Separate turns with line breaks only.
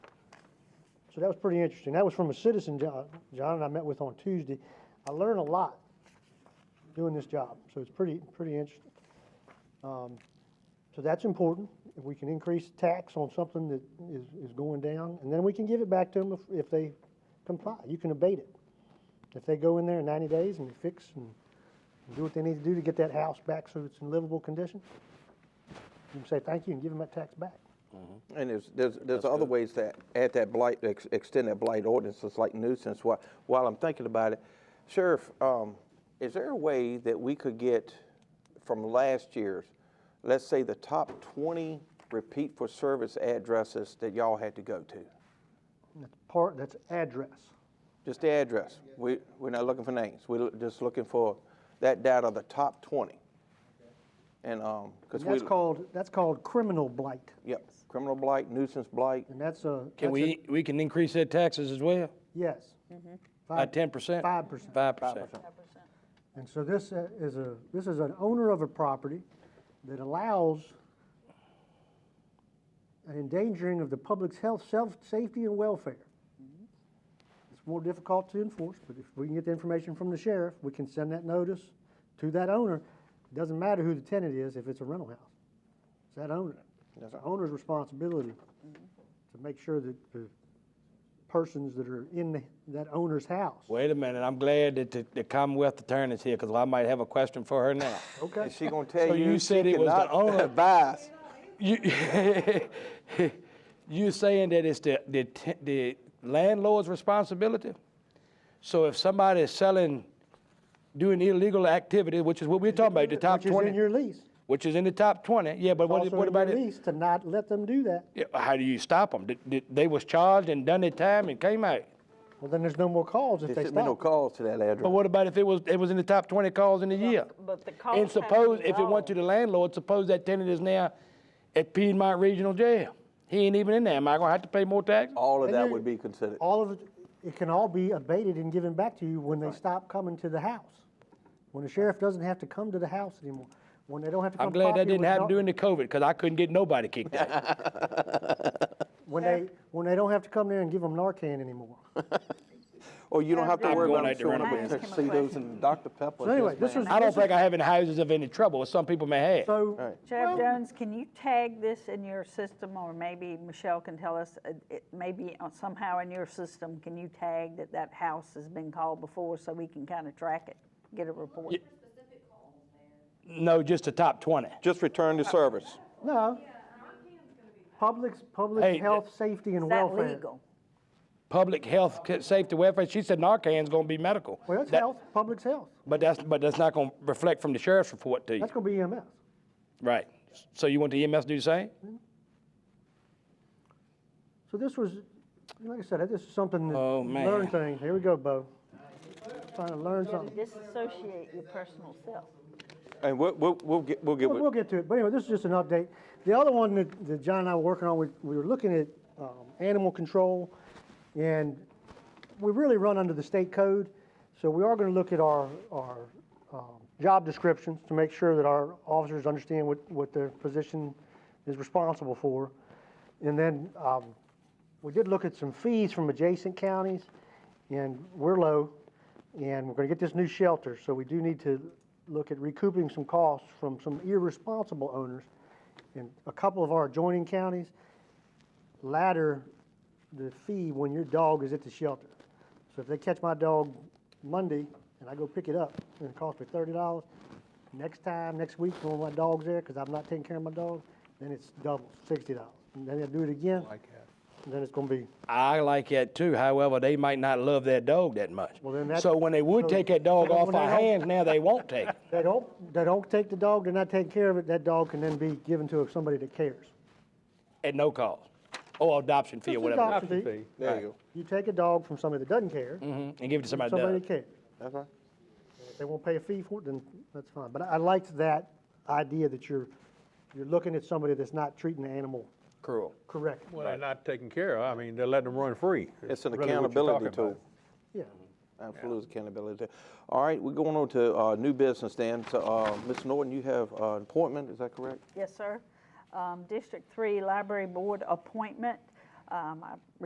So that was pretty interesting. That was from a citizen, John, John and I met with on Tuesday. I learned a lot doing this job, so it's pretty, pretty interesting. Um, So that's important. If we can increase tax on something that is, is going down, and then we can give it back to them if, if they comply. You can abate it. If they go in there in ninety days and fix and do what they need to do to get that house back so it's in livable condition, you can say thank you and give them that tax back.
And there's, there's, there's other ways to add that blight, ex- extend that blight ordinance, it's like nuisance, while, while I'm thinking about it. Sheriff, um, is there a way that we could get from last year's, let's say the top twenty repeat for service addresses that y'all had to go to?
And That's part, that's address.
Just the address, we, we're not looking for names, we're l- just looking for that data, the top twenty. And, um, cause
And
we,
That's called, that's called criminal blight,
yep, criminal blight, nuisance blight,
and that's a. that's a-
Can we, we can increase that taxes as well,
Yes.
by ten percent?
Five percent.
Five percent.
And so this uh, is a, this is an owner of a property that allows an endangering of the public's health, self, safety, and welfare. It's more difficult to enforce, but if we can get the information from the sheriff, we can send that notice to that owner. It Doesn't matter who the tenant is, if it's a rental house. It's that owner. It's the owner's responsibility to make sure that the persons that are in the- that owner's house.
Wait a minute, I'm glad that the- the Commonwealth Attorney's here, because I might have a question for her now.
Okay.
Is she gonna tell
So
you
you
she
said it was the
cannot
owner.
advise?
You, you saying that it's the, the, te- the landlord's responsibility? So if somebody is selling, doing illegal activity, which is what we're talking about, the top
Which is in
twenty,
your lease.
which is in the top twenty, yeah, but what,
Also
what
in your
about it?
lease to not let them do that.
Yeah, How do you stop them? They was charged and done their time and came out.
Well, then there's no more calls if
There
they
shouldn't be no
stop.
calls to that
But
address.
what about if it was, it was in the top twenty calls in the year?
but the
And
cost has to
suppose,
be
if it went to the landlord, suppose that tenant is now at Piedmont Regional Jail. He ain't even in there. Am I gonna have to pay more taxes?
All of
And Oh,
that
there-
would be considered.
All of it, it can all be abated and given back to you when they stop coming to the house. When the sheriff doesn't have to come to the house anymore, when they don't have to come.
I'm glad
pop you
that didn't
with
happen
no-
during the COVID, because I couldn't get nobody kicked out.
When they, when they don't have to come there and give them Narcan anymore.
Or Oh, you don't have to
I'm
worry
going
about
out to
showing
run
up with
a
business.
tuxedos and Dr. Pepper.
So anyway,
yes,
this
ma'am.
was.
I don't
this
think
was-
I have any houses of any trouble, as some people may have.
So,
Sheriff Jones, can you tag this in your system, or maybe Michelle can tell us, uh, it- maybe on- somehow in your system, can you tag that that house has been called before so we can kind of track it, get a report?
No, just the top twenty.
Just return to service.
no. Public,
Hey,
public health, safety and
Is that
welfare.
legal?
Public health, ca- safety, welfare. She said Narcan's gonna be medical.
Well, it's
That-
health, public's health.
But that's, but that's not gonna reflect from the sheriff's report to you,
That's gonna be E EMS.
right? So you want the EMS to do the same?
So this was, like I said, this is something that.
Oh, man.
Learn things. Here we go, Bo. Trying to learn something.
Disassociate your personal self.
And we'll, we'll, we'll get, we'll get
We'll, we'll
with,
get to it, but anyway, this is just an update. The other one that, that John and I were working on, we, we were looking at um, animal control, and we really run under the state code, so we are going to look at our, our um, job descriptions to make sure that our officers understand what, what their position is responsible for. And then um, we did look at some fees from adjacent counties, and we're low, and we're going to get this new shelter, so we do need to look at recouping some costs from some irresponsible owners in a couple of our adjoining counties. Ladder the fee when your dog is at the shelter. So if they catch my dog Monday and I go pick it up and it costs me thirty dollars, next time, next week, when my dog's there, because I'm not taking care of my dog, then it's double, sixty dollars. And then I do it again, and then it's gonna be
I like that too. However, they might not love their dog that much.
Well, then that-
so when they would
so-
take that dog
so
off
when
our
they don't-
hands, now they won't take it.
They don't, they don't take the dog, they're not taking care of it, that dog can then be given to somebody that cares.
At no cost. Or adoption fee or
Just
whatever.
adoption fee.
there you go.
You take a dog from somebody that doesn't care,
Mhm, And give it to somebody that
somebody
does.
that cares.
That's right.
If they won't pay a fee for it, then that's fine. But I I liked that idea that you're, you're looking at somebody that's not treating the animal
Cruel.
correctly.
Well, they're not taken care of. I mean, they're letting them run free.
It's an
Really what you're
accountability
talking about.
tool.
Yeah.
Absolute accountability. tool. All right, we're going on to, uh, new business then. So, uh, Ms. Norton, you have, uh, an appointment, is that correct?
Yes, sir. Um, District Three Library Board appointment. Um, I